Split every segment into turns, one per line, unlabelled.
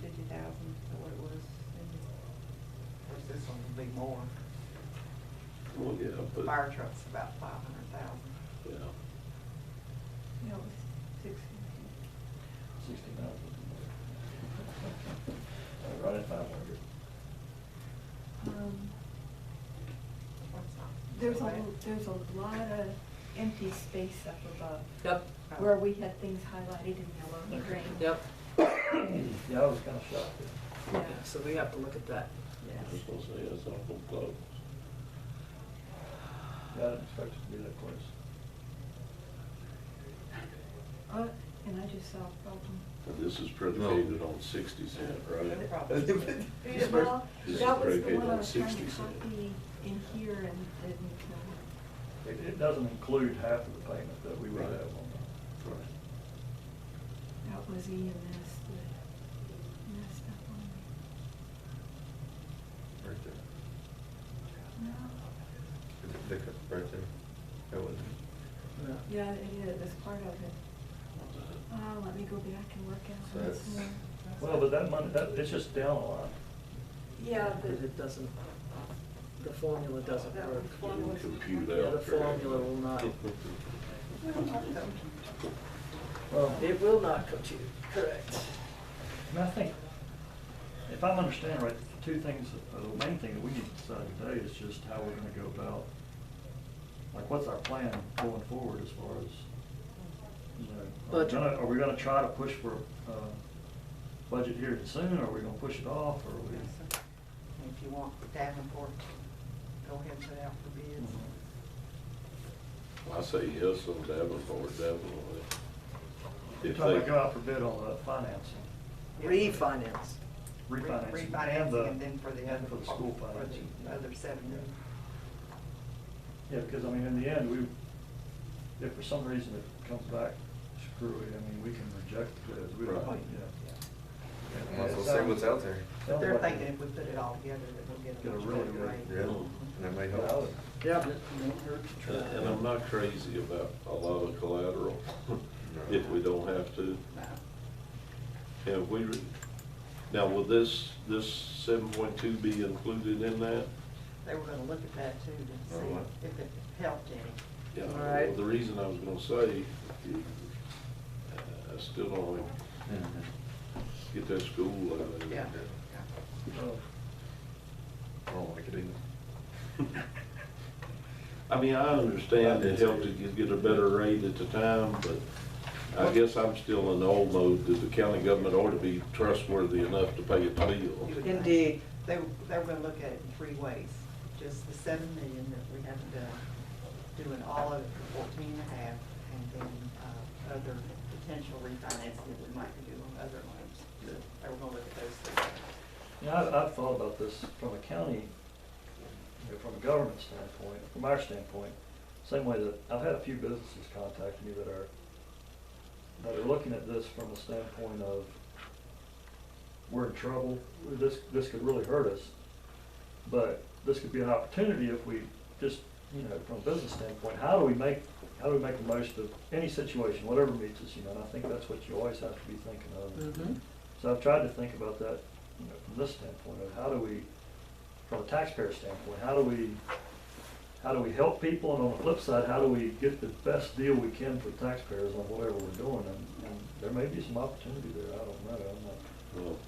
fifty thousand, is that what it was?
Whereas this one would be more.
Well, yeah,
The
but,
fire truck's about five hundred thousand.
yeah,
No, it's six fifty.
Sixty thousand. Right at five hundred.
Um,
That's not.
There's
so
a,
bad.
there's a lot of empty space up above.
Yep,
Where we had things highlighted in yellow and green.
yep,
Yeah, I was kinda shocked.
Yeah,
so we have to look at that.
I
yes.
was gonna say, that's awful close.
I didn't expect it to be that close.
Uh, and I just saw a problem.
And this is predicated on sixty cent,
No
right?
problem.
This is
Well,
this is
that was the
predicated
one I
on
was trying
60
to
cent.
copy in here and didn't.
It, it doesn't include half of the payment that we would
Right.
have on that.
Right.
uh, That was EMS that messed up on me.
Right there.
No,
Is it pickup right there? That was it.
Yeah, it is, it's part of it. Uh, let me go back and work
So
out on this
that's-
more.
Well, but that money, that, it's just down a line.
Yeah,
But it doesn't, the formula doesn't
That
work.
was
You
one
can
was-
compute
Yeah, the
out correctly.
formula will not,
Well, not though.
Well,
it will not compute, correct.
I mean, I think, if I'm understanding right, the two things, uh, the main thing that we need to decide today is just how we're gonna go about, like, what's our plan going forward as far as, you know, are we
Budget.
gonna, are we gonna try to push for, uh, budget here soon, or are we gonna push it off, or are we?
If you want the Davenport, go ahead and put out for bids.
Mm-hmm.
I say yes on Davenport, definitely.
You're
If
talking about
they,
go out for bid on the financing,
Refinance.
refinancing.
Refinancing
the-
and then for the
and
other.
for the school
for the
financing.
Other seven.
Yeah, because I mean, in the end, we, if for some reason it comes back screwy, I mean, we can reject the bids, we don't,
Right.
yeah.
Might as well see what's out there.
But they're thinking if we put it all together, that we'll get
Get a
a much
really
better
good
rate.
Yeah, and that might
Yeah, I
help.
would-
Yep. it won't hurt to try.
and and I'm not crazy about a lot of collateral if we don't have to. And we, re- now, will this, this seven point two be included in that?
They were gonna look at that too, to
Oh, what?
see if it helped any.
Yeah,
All
well,
right.
the reason I was gonna say, uh, I still don't wanna
Mhm.
get that school out of there.
Yeah.
Oh,
I don't like it either.
I mean, I understand it helped to get- get a better rate at the time, but I guess I'm still in the old mode that the county government ought to be trustworthy enough to pay its
You
bills.
would think.
Indeed.
They, they were gonna look at it in three ways, just the seven million that we haven't done, doing all of it for fourteen and a half, and then, uh, other potential refinancing that we might do on other loans. They were gonna look at those three.
You know, I've, I've thought about this from a county, you know, from a government standpoint, from our standpoint, same way that, I've had a few businesses contact me that are, that are looking at this from a standpoint of, we're in trouble, this, this could really hurt us, but this could be an opportunity if we just, you know, from a business standpoint, how do we make, how do we make the most of any situation, whatever meets us, you know, and I think that's what you always have to be thinking of.
Mhm.
So I've tried to think about that, you know, from this standpoint of how do we, from a taxpayer standpoint, how do we, how do we help people? And on the flip side, how do we get the best deal we can for taxpayers on whatever we're doing? And, and there may be some opportunity there, I don't know, I'm not.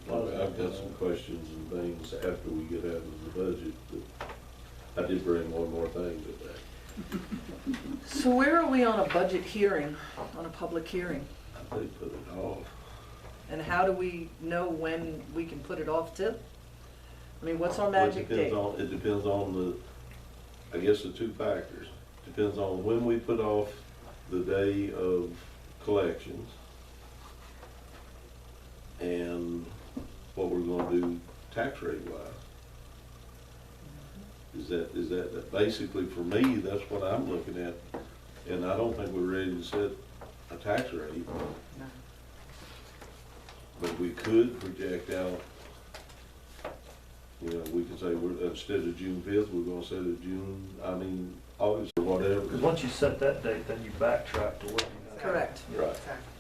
Well, I've got some questions and things after we get out of the budget, but I did bring one more thing to that.
So where are we on a budget hearing, on a public hearing?
They put it off.
And how do we know when we can put it off to? I mean, what's our
Well, it
magic
depends
date?
on- It depends on the, I guess the two factors. Depends on when we put off the day of collections and what we're gonna do tax rate wise.
嗯
Is that, is that, that basically for me, that's what I'm looking at. And I don't think we're ready to set a tax rate,
No.
but we could project out, you know, we can say, we're, instead of June fifth, we're gonna set it June, I mean, August or
Because
whatever.
once you set that date, then you backtrack to what you have.
Correct.
Right.
Exactly.